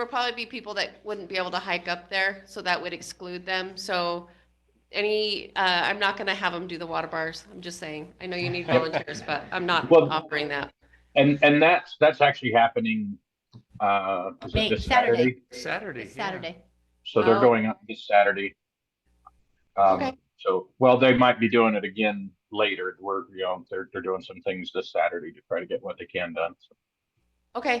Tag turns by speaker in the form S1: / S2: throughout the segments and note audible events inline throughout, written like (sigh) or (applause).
S1: would probably be people that wouldn't be able to hike up there, so that would exclude them. So any, uh, I'm not gonna have them do the water bars. I'm just saying. I know you need volunteers, but I'm not
S2: Well-
S1: offering that.
S2: And, and that's, that's actually happening, uh, is it
S3: May-
S2: this
S3: Saturday.
S2: Saturday?
S4: Saturday.
S3: It's
S4: yeah.
S3: Saturday.
S2: So they're
S1: Oh.
S2: going up this Saturday.
S1: Okay.
S2: Um, so, well, they might be doing it again later. We're, you know, they're, they're doing some things this Saturday to try to get what they can done. So
S1: Okay, all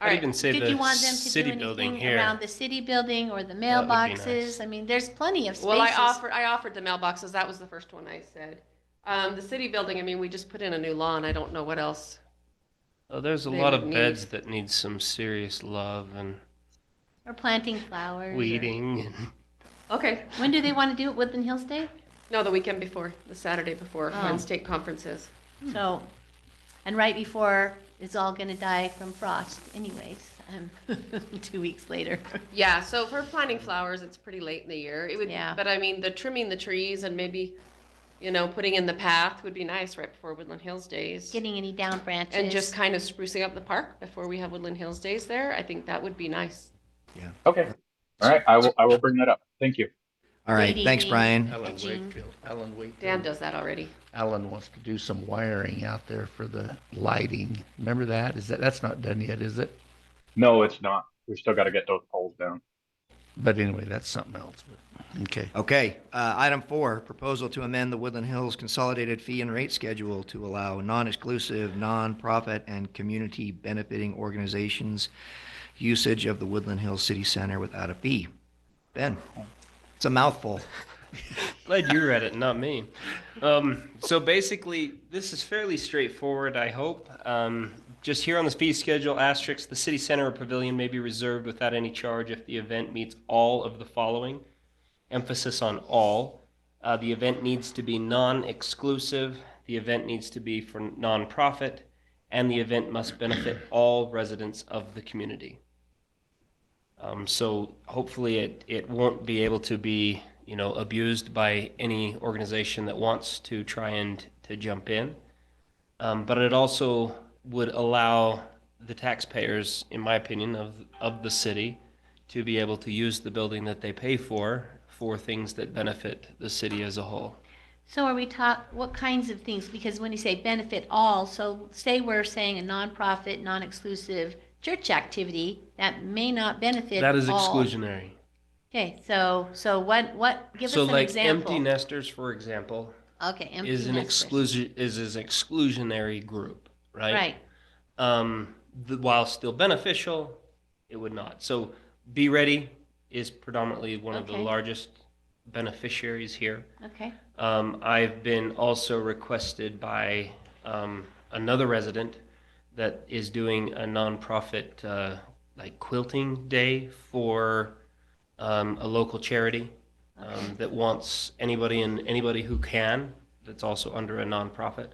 S5: I'd
S1: right.
S5: even say
S3: Did you
S5: the
S3: want them to
S5: city
S3: do
S5: building
S3: anything
S5: here.
S3: around the city building or the
S5: That would be
S3: mailboxes?
S5: nice.
S3: I mean, there's plenty of
S1: Well, I
S3: spaces.
S1: offer, I offered the mailboxes. That was the first one I said. Um, the city building, I mean, we just put in a new lawn. I don't know what else.
S5: Oh, there's a
S1: they
S5: lot
S1: would
S5: of beds that need some serious love and
S3: Or planting flowers. or-
S5: weeding and
S1: Okay,
S3: When do they want to do it? Woodland Hills Day?
S1: no, the weekend before, the Saturday before,
S3: Oh.
S1: when state conferences.
S5: Hmm.
S3: So, and right before it's all going to die from frost anyways, um, (laughs) two
S1: (laughs)
S3: weeks later.
S1: Yeah, so for planting flowers, it's pretty late in the year. It would,
S3: Yeah.
S1: but I mean, the trimming the trees and maybe, you know, putting in the path would be nice right before Woodland Hills Days.
S3: Getting any down branches.
S1: And just kind of sprucing up the park before we have Woodland Hills Days there. I think that would be nice.
S2: Okay, all right, I will, I will bring that up. Thank you.
S6: All right, thanks,
S3: Weeding.
S6: Brian.
S4: Alan
S3: Edging.
S4: Wakefield, Alan
S1: Dan
S4: Wakefield.
S1: does that already.
S4: Alan wants to do some wiring out there for the lighting. Remember that? Is that, that's not done yet, is it?
S2: No, it's not. We've still got to get those poles down.
S4: But anyway, that's something else. but- Okay.
S6: Okay, uh, item four, proposal to amend the Woodland Hills Consolidated Fee and Rate Schedule to allow non-exclusive, nonprofit, and community benefiting organizations usage of the Woodland Hills City Center without a fee. Ben, it's a mouthful.
S5: Glad you read it, not me. Um, so basically, this is fairly straightforward, I hope. Um, just here on the fee schedule, asterisk, the city center or pavilion may be reserved without any charge if the event meets all of the following. Emphasis on all. Uh, the event needs to be non-exclusive, the event needs to be for nonprofit, and the event must benefit all residents of the community. Um, so hopefully it, it won't be able to be, you know, abused by any organization that wants to try and to jump in. Um, but it also would allow the taxpayers, in my opinion, of, of the city to be able to use the building that they pay for, for things that benefit the city as a whole.
S3: So are we taught, what kinds of things? Because when you say benefit all, so say we're saying a nonprofit, non-exclusive church activity, that may not benefit
S5: That is
S3: all.
S5: exclusionary.
S3: Okay, so, so what, what, give us
S5: So
S3: an
S5: like empty
S3: example.
S5: nesters, for example,
S3: Okay, empty
S5: is an
S3: nesters.
S5: exclusion, is an exclusionary group,
S3: Right,
S5: um, the, while still beneficial, it would not. So Be Ready is predominantly one of the
S3: Okay.
S5: largest beneficiaries here.
S3: okay.
S5: Um, I've been also requested by um, another resident that is doing a nonprofit uh, like quilting day for um, a local charity um, that wants anybody and anybody who can that's also under a nonprofit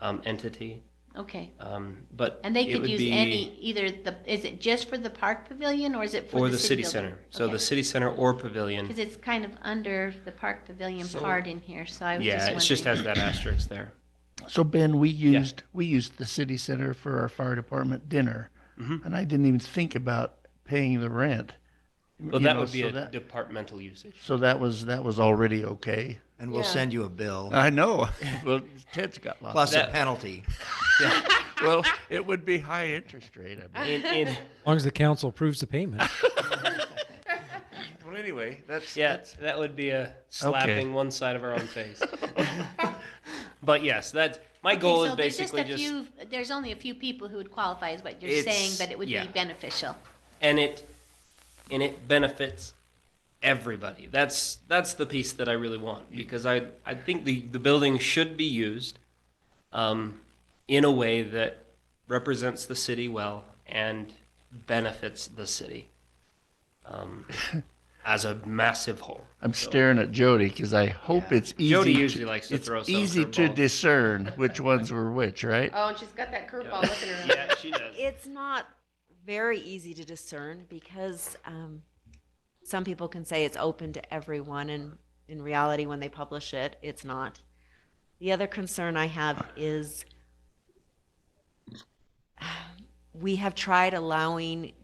S5: um, entity.
S3: Okay,
S5: Um, but
S3: and they
S5: it
S3: could
S5: would
S3: use
S5: be-
S3: any, either the, is it just for the park pavilion or is it for
S5: or
S3: the city building?
S5: center. So the city center or pavilion.
S3: Because it's kind of under the park pavilion
S5: So-
S3: part in here, so I was just
S5: Yeah,
S3: wondering.
S5: it just
S3: (laughs)
S5: has that asterisk there.
S4: So Ben, we used, we used the city center for our fire department dinner.
S5: Mhm.
S4: And I didn't even think about paying the rent.
S5: Well,
S4: you
S5: that
S4: know,
S5: would be
S4: so
S5: a
S4: that-
S5: departmental
S4: (laughs)
S5: usage.
S4: So that was, that was already okay.
S6: And we'll
S1: Yeah.
S6: send you a bill,
S4: I know. (laughs) Well, Ted's got lots.
S6: plus a
S5: that-
S6: penalty.
S4: Well, it would be high interest rate, I bet.
S5: In, (laughs) in,
S7: As long as the council approves the payment.
S4: Well, anyway, that's.
S5: yeah, that would be a slapping one side of our own
S3: (laughs)
S5: face. (laughs) but yes, that's my
S3: Okay,
S5: goal
S3: so
S5: is
S3: there's
S5: basically
S3: a
S5: just,
S3: few- There's only a few people who would qualify is what you're
S5: It's-
S3: saying, but it would be
S5: yeah.
S3: beneficial.
S5: and it and it benefits everybody. That's that's the piece that I really want because I I think the the building should be used um, in a way that represents the city well and benefits the city
S4: (laughs)
S5: um, as a massive whole.
S4: I'm staring at Jody because I hope
S6: Yeah.
S4: it's easy.
S5: Jody usually likes to
S4: it's
S5: throw some
S4: easy to
S5: curveballs.
S4: discern which ones were which, right?
S1: Oh, and she's got that curveball
S5: Yeah. (laughs)
S1: looking around.
S5: Yeah, she does.
S8: It's not very easy to discern because um, some people can say it's open to everyone, and in reality, when they publish it, it's not. The other concern I have (sighs) is we have tried allowing